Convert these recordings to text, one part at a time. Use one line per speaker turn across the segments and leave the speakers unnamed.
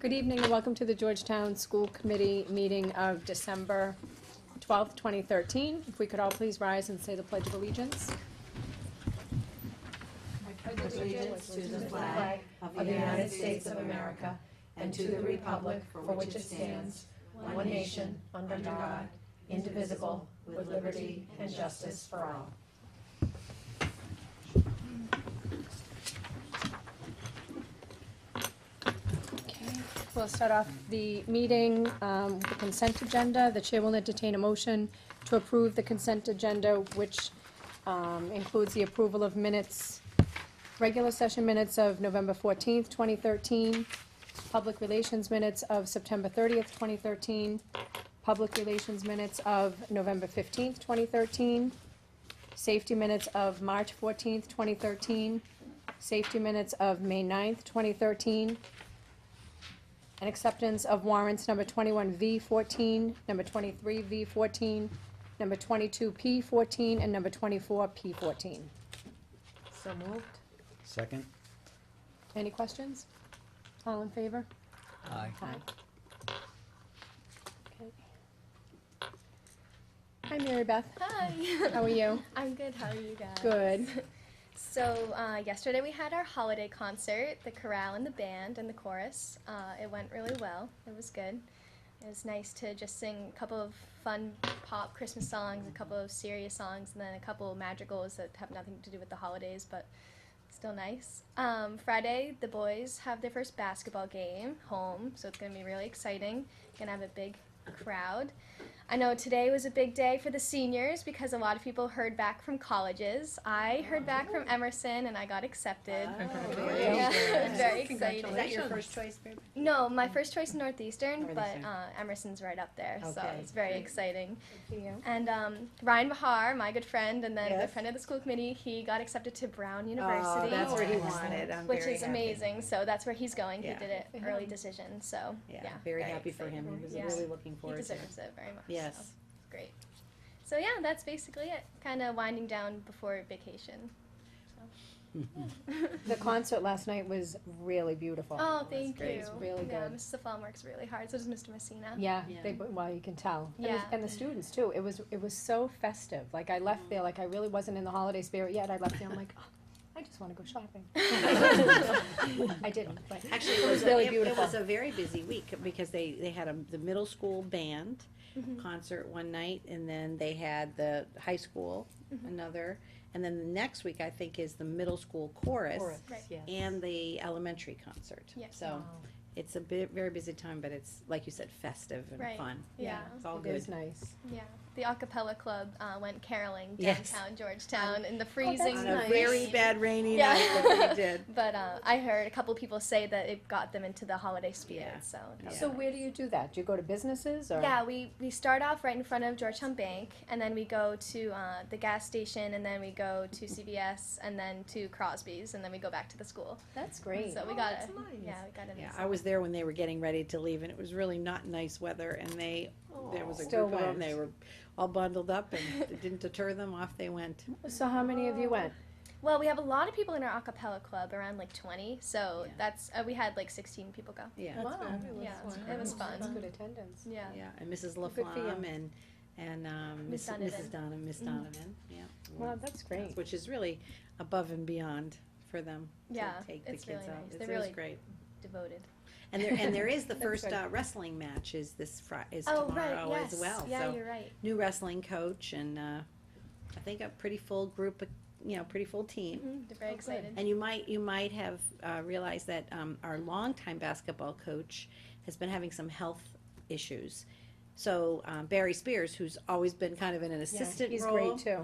Good evening and welcome to the Georgetown School Committee meeting of December twelfth, twenty thirteen. If we could all please rise and say the Pledge of Allegiance.
allegiance to the flag of the United States of America and to the republic for which it stands, one nation, under God, indivisible, with liberty and justice for all.
Okay, We'll start off the meeting um, with the consent agenda. The chair will entertain a motion to approve the consent agenda, which um, includes the approval of minutes, regular session minutes of November fourteenth, twenty thirteen, public relations minutes of September thirtieth, twenty thirteen, public relations minutes of November fifteenth, twenty thirteen, safety minutes of March fourteenth, twenty thirteen, safety minutes of May 9th, twenty thirteen, and acceptance of warrants number twenty-one V fourteen, number twenty-three V fourteen, number twenty-two P fourteen, and number twenty-four P fourteen.
So moved.
Second?
Any questions? All in favor?
Aye.
Aye. Okay. Hi, Mary Beth. How
Hi.
are you?
I'm good. How are you guys?
Good.
So uh, yesterday we had our holiday concert, the chorale and the band and the chorus. Uh, it went really well. It was good. It was nice to just sing a couple of fun pop Christmas songs, a couple of serious songs, and then a couple of madrigals that have nothing to do with the holidays, but still nice. Um, Friday, the boys have their first basketball game home, so it's going to be really exciting. Going to have a big crowd. I know today was a big day for the seniors because a lot of people heard back from colleges. I heard back from Emerson and I got accepted. Yeah, very excited.
Is that your first choice, babe?
No, my first choice Northeastern,
Northeastern.
but uh, Emerson's right up there, so
Okay,
it's very
great.
exciting. And um, Ryan Bahar, my good friend, and then the
Yes.
friend of the school committee, he got accepted to Brown
Oh,
University,
that's where he
Wow.
wanted. I'm
which
very
is
happy.
amazing. So that's where he's going.
Yeah.
He did it
For
early
him.
decision. So yeah,
Yeah, very happy for
exciting.
him. He was
Yeah.
really looking
He
forward to it.
deserves it very much. so
Yes.
it's great. So yeah, that's basically it. Kind of winding down before vacation.
The concert last night was really beautiful.
Oh, thank
great.
you.
It's really
Yeah,
good.
Mr. Fallon works really hard. So does Mr. Messina.
Yeah,
Yeah.
they, well, you can tell. And,
Yeah.
the, and the students too. It was it was so festive. Like I left there, like I really wasn't in the holiday spirit yet. I left there, I'm like, oh, I just want to go shopping. I didn't, but
Actually,
It
it
was
was, a-
really
it- it
beautiful.
was a very busy week because they, they had a, the middle school band
Mhm.
concert one night and then they had the high school another. And then the next week, I think, is the middle school chorus
Right.
and the elementary concert.
Yeah.
So
Oh,
it's a bit, very busy time, but it's, like you said, festive and
Right.
fun.
Yeah.
It's all
it
good.
was nice.
Yeah. The acapella club uh, went caroling
Yes.
downtown Georgetown in the freezing
On a
night.
very bad rainy
Yeah.
night that we did.
But uh, I heard a couple people say that it got them into the holiday spirit.
Yeah.
So that
Yeah.
was
So where do you do that? Do you go to businesses or?
Yeah, we, we start off right in front of Georgetown Bank, and then we go to uh, the gas station, and then we go to CVS, and then to Crosby's, and then we go back to the school.
that's great.
So we got a yeah, we got a
Mm-hmm. Yeah,
nice-
I was there when they were getting ready to leave, and it was really not nice weather, and they, there was a
Still
group of them,
went.
they were all bundled up, and it didn't deter them, off they went.
So how many of you went?
Well, we have a lot of people in our acapella club, around like twenty. So
Yeah.
that's uh, we had like sixteen people go.
Yeah,
Wow.
Yeah, it
That's
was fun.
good attendance.
Yeah.
yeah, and Mrs.
for
Laflamme and, and, um,
Miss
Miss- Mrs.
Donovan. Mm-hmm.
Donovan, Miss Donovan, yeah.
Wow, that's great.
Which is really above and beyond for them to
Yeah,
take the
it's
kids
really
out.
nice.
It's-
They're
It was
really-
great.
Devoted.
And there, and there is the
That's
first
good.
uh, wrestling match is this Fri- is
Oh right,
tomorrow
yes.
as well,
yeah,
so.
you're right.
new wrestling coach and uh, I think a pretty full group, you know, pretty full team.
Mhm, They're very
Oh, good.
excited.
And you might you might have uh, realized that um, our longtime basketball coach has been having some health issues. So um, Barry Spears, who's always been kind of in an assistant
He's
role,
great too.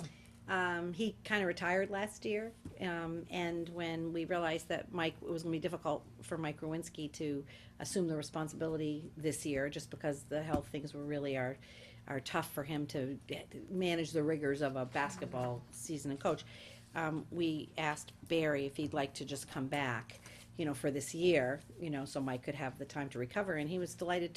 um, he kind of retired last year, um, and when we realized that Mike, it was going to be difficult for Mike Rowinski to assume the responsibility this year, just because the health things were really are, are tough for him to get- manage the rigors of a basketball season and coach. Um, we asked Barry if he'd like to just come back, you know, for this year, you know, so Mike could have the time to recover, and he was delighted to